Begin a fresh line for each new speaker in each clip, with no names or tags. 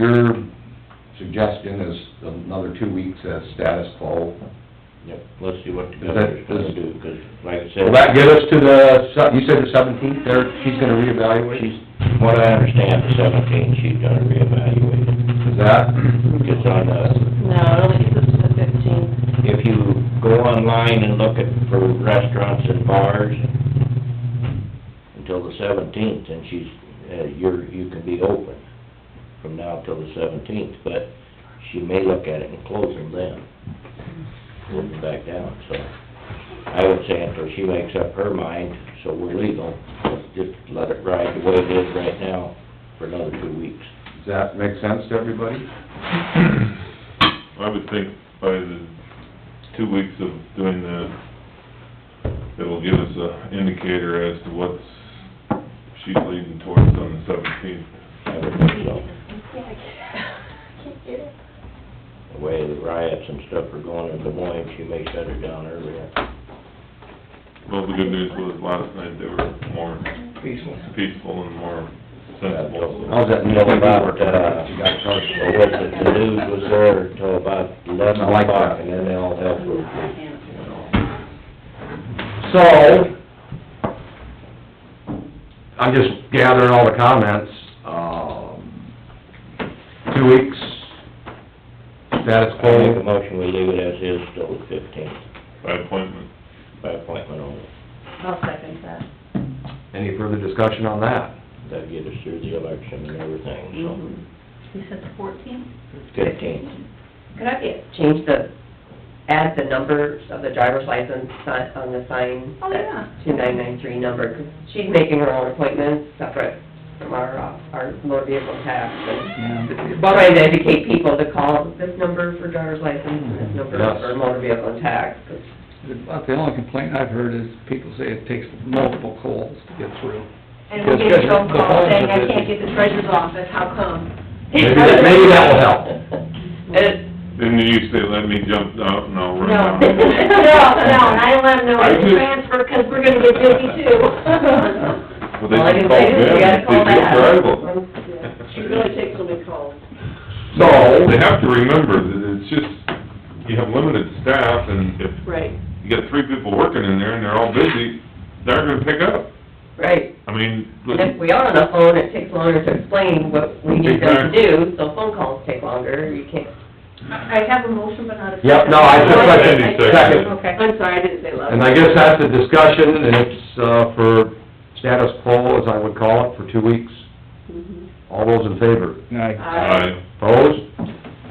your suggestion is another two weeks as status quo.
Yep, let's see what the
Is that-
governor's gonna do, 'cause like I said.
Will that get us to the, se- you said the seventeenth there, she's gonna reevaluate?
She's, from what I understand, the seventeen, she's gonna reevaluate it.
Is that,
Because on the,
No, it only gets us to the fifteenth.
if you go online and look at, for restaurants and bars, until the seventeenth, and she's, uh, you're, you can be open from now till the seventeenth, but she may look at it and close them then, put them back down, so. I would say until she makes up her mind, so we're legal, let's just let it ride the way it is right now for another two weeks.
does that make sense to everybody?
I would think by the two weeks of doing the, it'll give us a indicator as to what's she's leading towards on the seventeenth.
I would think so.
Can't get it.
The way the riots and stuff are going in Des Moines, she may shut it down earlier.
Well, the good news was last night they were more
Peaceful.
peaceful and more sensible. so-
How's that
Till about, uh,
You got charged.
well, what the the news was there till about
I
eleven
like that.
o'clock, and then they all helped with it.
So, I'm just gathering all the comments, um, two weeks, status
I make a
quo,
motion, we leave it as is till the fifteenth,
By appointment.
by appointment only.
I'll second that.
any further discussion on that?
That'll get us through the election and everything,
Mhm.
You said the fourteenth?
so,
Mm-hmm.
fifteenth.
Could I get, change the, add the numbers of the driver's license si- on the sign?
Oh, yeah.
Two nine nine three number, 'cause she's making her own appointments separate from our, uh, our motor vehicle tax. and Trying to educate people to call this number for driver's license and this number
Yes.
for motor vehicle tax, 'cause
About the only complaint I've heard is people say it takes multiple calls to get through.
And we get a phone call saying, I can't get the treasurer's office, how come?
Maybe that, maybe that will help.
Didn't you used to let me jump out and I'll
No,
run
no,
down?
no, and I don't let them know
I
it's
do.
transfer, 'cause we're gonna get busy too.
Well,
All I
they
can say
just called
is you
them,
gotta
they
call
just
back.
arrival.
She really takes so many calls.
So,
They have to remember that it's just, you have limited staff and if
Right.
you got three people working in there and they're all busy, they're gonna pick up.
Right,
I mean,
and if we are on the phone, it takes longer to explain what we need them to do, so phone calls take longer, you can't
I I have a motion, but not a second.
Yep, no, I
just
like
it. Second.
Okay.
I'm sorry, I didn't say love.
and I guess that's a discussion, and it's, uh, for status quo, as I would call it, for two weeks.
Mhm.
Mm-hmm.
All those in favor?
Now,
Aye.
Opposed?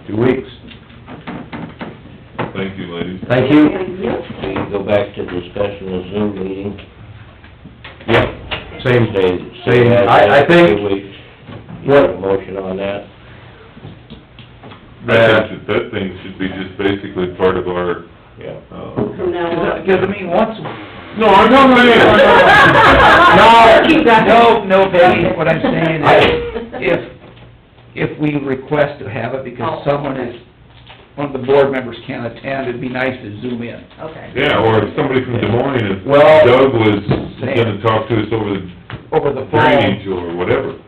Two weeks.
Aye. thank you, ladies.
Thank you.
We can go back to discussion of Zoom meeting.
Yep, same day.
Stay- stay
same.
as
I- I
is,
think-
two weeks. You have a motion on that?
I think that that thing should be just basically part of our,
Yeah.
uh,
From now on.
because I mean, once,
no, I'm not
no,
Keep that.
no, no, Betty, what I'm saying is,
I
if, if we request to have it because someone is, one of the board members can't attend, it'd be nice to zoom in.
Okay.
Yeah, or if somebody from Des Moines, if
Well-
Doug was gonna talk to us over the
Over the phone,
drainage or whatever.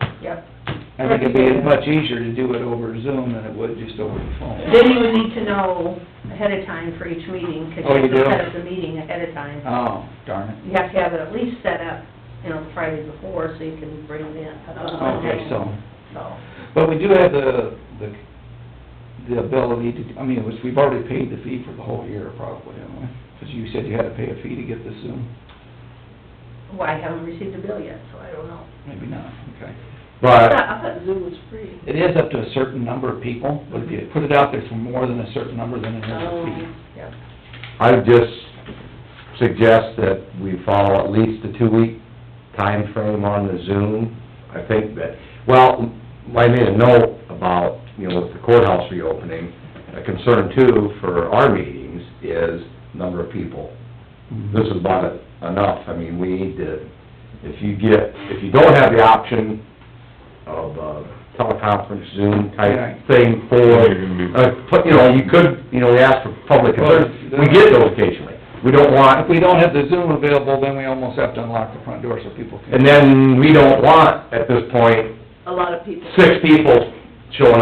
I think it'd be much easier to do it over Zoom than it would just over the phone.
Then you would need to know ahead of time for each meeting, 'cause
Oh, you
you have to
do?
set up the meeting ahead of time.
Oh, darn it.
You have to have it at least set up, you know, Friday before, so you can bring it in.
Okay, so.
So,
But we do have the, the, the ability to, I mean, it was, we've already paid the fee for the whole year probably, haven't we? Because you said you had to pay a fee to get this Zoom,
well, I haven't received a bill yet, so I don't know.
maybe not, okay.
But,
I thought Zoom was free.
It is up to a certain number of people, but if you put it out there for more than a certain number, then it has a fee.
Yep.
I would just suggest that we follow at least the two-week time frame on the Zoom. I think that, well, I made a note about, you know, with the courthouse reopening, a concern too for our meetings is number of people. This is about it- enough, I mean, we need to, if you get, if you don't have the option of uh, teleconference Zoom
Right.
type thing for
You're gonna be-
uh, put, you know, you could, you know, we ask for public concerns, we get those occasionally. We don't
If
want,
we don't have the Zoom available, then we almost have to unlock the front door so people can.
and then we don't want, at this point,
A lot of people.
six people showing up.